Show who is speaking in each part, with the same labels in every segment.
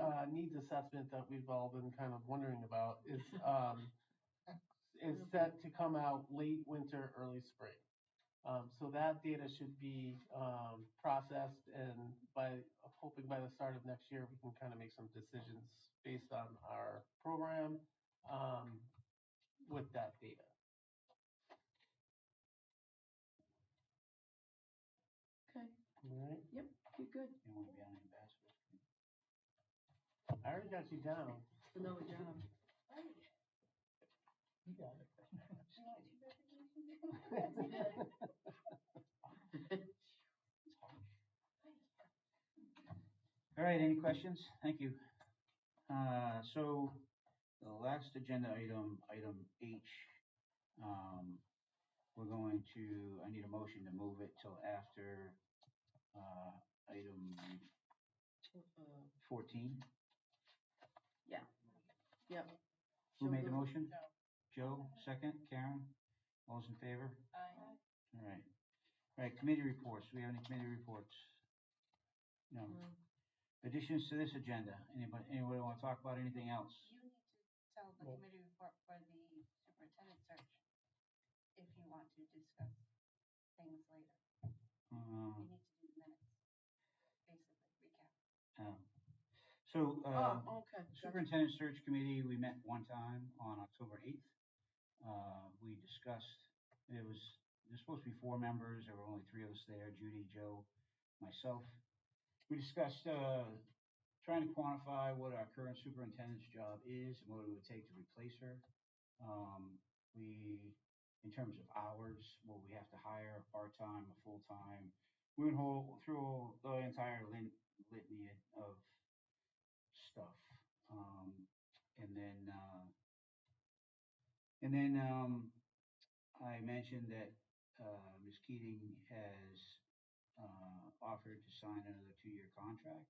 Speaker 1: uh, needs assessment that we've all been kind of wondering about is, um, is set to come out late winter, early spring. Um, so that data should be, um, processed and by, I'm hoping by the start of next year, we can kind of make some decisions based on our program, um, with that data.
Speaker 2: Okay,
Speaker 1: All right,
Speaker 2: okay, good.
Speaker 3: You want to be on Ambassador Street?
Speaker 1: I already got you down.
Speaker 2: Another job.
Speaker 3: You got it. All right, any questions? Thank you. Uh, so the last agenda item, item H, um, we're going to, I need a motion to move it till after, uh, item
Speaker 2: Uh,
Speaker 3: fourteen.
Speaker 2: Yep.
Speaker 3: Who
Speaker 2: Joe
Speaker 3: made the
Speaker 2: Lu-
Speaker 3: motion?
Speaker 1: um,
Speaker 3: Joe, second, Karen, all's in favor?
Speaker 4: Uh,
Speaker 3: All right. All right, committee reports, do we have any committee reports? No.
Speaker 2: No.
Speaker 3: Additions to this agenda, anybody, anybody want to talk about anything else?
Speaker 4: You need to tell the
Speaker 1: Well-
Speaker 4: committee report for the superintendent search if you want to discuss things later.
Speaker 3: Uh,
Speaker 4: You need to do the minutes, basically recap.
Speaker 3: um, So, uh,
Speaker 2: Oh, okay. gotcha.
Speaker 3: superintendent search committee, we met one time on October eighth. Uh, we discussed, there was, there's supposed to be four members, there were only three of us there, Judy, Joe, myself. We discussed, uh, trying to quantify what our current superintendent's job is and what it would take to replace her. Um, we, in terms of hours, will we have to hire a part-time, a full-time? We went whole, through the entire lin- litany of stuff. Um, and then, uh, and then, um, I mentioned that, uh, Ms. Keating has, uh, offered to sign another two-year contract.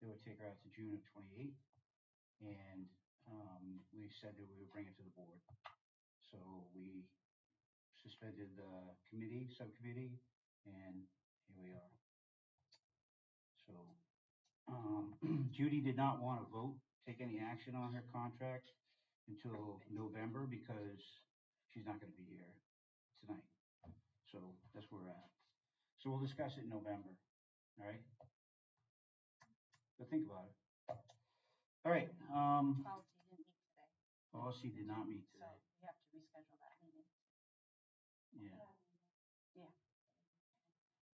Speaker 3: It would take her out to June of twenty-eight. And, um, we said that we would bring it to the board. So we suspended the committee, subcommittee, and here we are. So, um, Judy did not want to vote, take any action on her contract until November because she's not going to be here tonight. So that's where we're at. So we'll discuss it in November, all right? But think about it. All right, um,
Speaker 4: Policy didn't meet
Speaker 3: policy did not meet
Speaker 4: today, so
Speaker 3: today.
Speaker 4: we have to reschedule that meeting.
Speaker 2: uh,
Speaker 3: Yeah,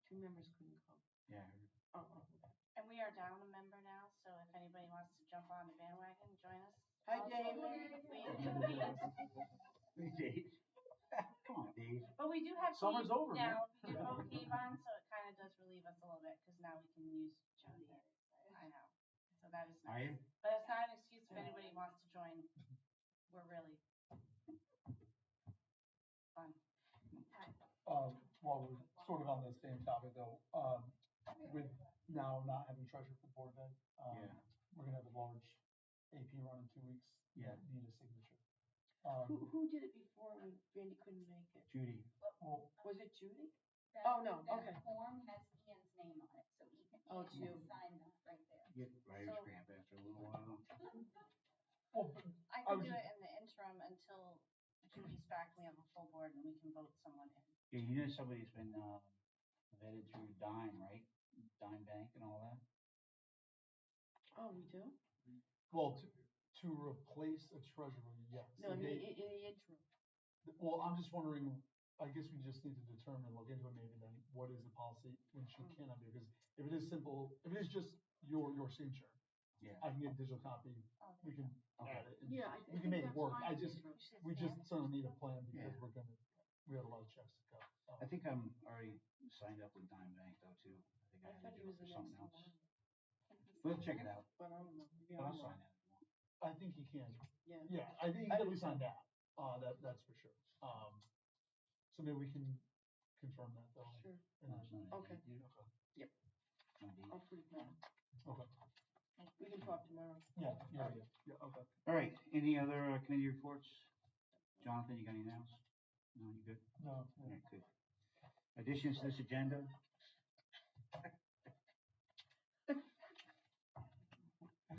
Speaker 2: Two members couldn't come.
Speaker 3: yeah.
Speaker 2: Oh, oh, okay.
Speaker 4: And we are down a member now, so if anybody wants to jump on the bandwagon, join us.
Speaker 2: Hi,
Speaker 4: Also,
Speaker 2: Dave.
Speaker 4: we-
Speaker 3: Hey, Dave. Come on, Dave.
Speaker 4: But we do have
Speaker 1: Summer's
Speaker 4: Keith
Speaker 1: over, man.
Speaker 4: now. We do have Keith on, so it kind of does relieve us a little bit because now we can use Jody. I know. So that is
Speaker 3: Are
Speaker 4: nice.
Speaker 3: you?
Speaker 4: But it's not an excuse if anybody wants to join. We're really fun.
Speaker 5: Um, while we're sort of on the same topic though, um, with now not having treasurer for board then, um,
Speaker 2: Uh,
Speaker 3: Yeah.
Speaker 5: we're gonna have a large AP run in two weeks. that Need a signature.
Speaker 2: Who,
Speaker 5: Um,
Speaker 2: who did it before when Randy couldn't make it?
Speaker 3: Judy.
Speaker 5: well,
Speaker 2: Was it Judy?
Speaker 6: That-
Speaker 2: Oh, no,
Speaker 6: that
Speaker 2: okay.
Speaker 6: form has Ian's name on it, so Ian
Speaker 2: Oh, it's
Speaker 6: Ian
Speaker 2: you.
Speaker 6: can sign that right there.
Speaker 3: Get writer's
Speaker 4: So-
Speaker 3: cramp after a little while.
Speaker 5: well, but
Speaker 4: I
Speaker 5: I
Speaker 2: Oh,
Speaker 4: can
Speaker 5: was
Speaker 4: do it in the interim until Judy's back, we have a full board and we can vote someone in.
Speaker 3: Yeah, you know somebody's been uh, vetted through Dime, right? Dime Bank and all that?
Speaker 2: Oh, we do?
Speaker 5: well, to, to replace a treasurer, yes.
Speaker 2: No, in the,
Speaker 5: They-
Speaker 2: in the interim.
Speaker 5: Well, I'm just wondering, I guess we just need to determine, look into it maybe then, what is the policy when she
Speaker 2: Mm.
Speaker 5: cannot be, because if it is simple, if it is just your, your signature,
Speaker 3: Yeah.
Speaker 5: I can get a digital copy,
Speaker 4: Oh,
Speaker 5: we can
Speaker 3: Okay.
Speaker 5: add it. and
Speaker 2: Yeah, I
Speaker 5: We
Speaker 2: think
Speaker 5: can make it
Speaker 2: that's
Speaker 5: work,
Speaker 2: fine
Speaker 5: I
Speaker 2: in the
Speaker 5: just,
Speaker 2: interim.
Speaker 4: should
Speaker 5: We
Speaker 4: stand.
Speaker 5: just sort of need a plan because
Speaker 3: Yeah.
Speaker 5: we're gonna, we have a lot of checks to go. Um,
Speaker 3: I think I'm already signed up with Dime Bank though too. I think I
Speaker 2: I
Speaker 3: had
Speaker 2: thought
Speaker 3: to
Speaker 2: he
Speaker 3: do
Speaker 2: was
Speaker 3: it for
Speaker 2: the
Speaker 3: something
Speaker 2: next
Speaker 3: else.
Speaker 2: one, Oh,
Speaker 3: We'll check it out.
Speaker 2: but I don't know. Maybe
Speaker 3: But
Speaker 2: I'm
Speaker 3: I'll
Speaker 2: wrong.
Speaker 3: sign it.
Speaker 5: I think he can,
Speaker 2: Yeah.
Speaker 5: yeah, I think he can at least on that, uh, that, that's for sure. Um, so maybe we can confirm that though.
Speaker 2: Sure,
Speaker 5: and then-
Speaker 2: Okay. Yep.
Speaker 3: All
Speaker 2: I'll put it down.
Speaker 5: Okay,
Speaker 2: We can talk tomorrow.
Speaker 5: yeah, yeah, yeah, yeah, okay.
Speaker 3: right, any other uh, committee reports? Jonathan, you got anything else? No, you good?
Speaker 5: No,
Speaker 3: All right, good. Additions to this agenda?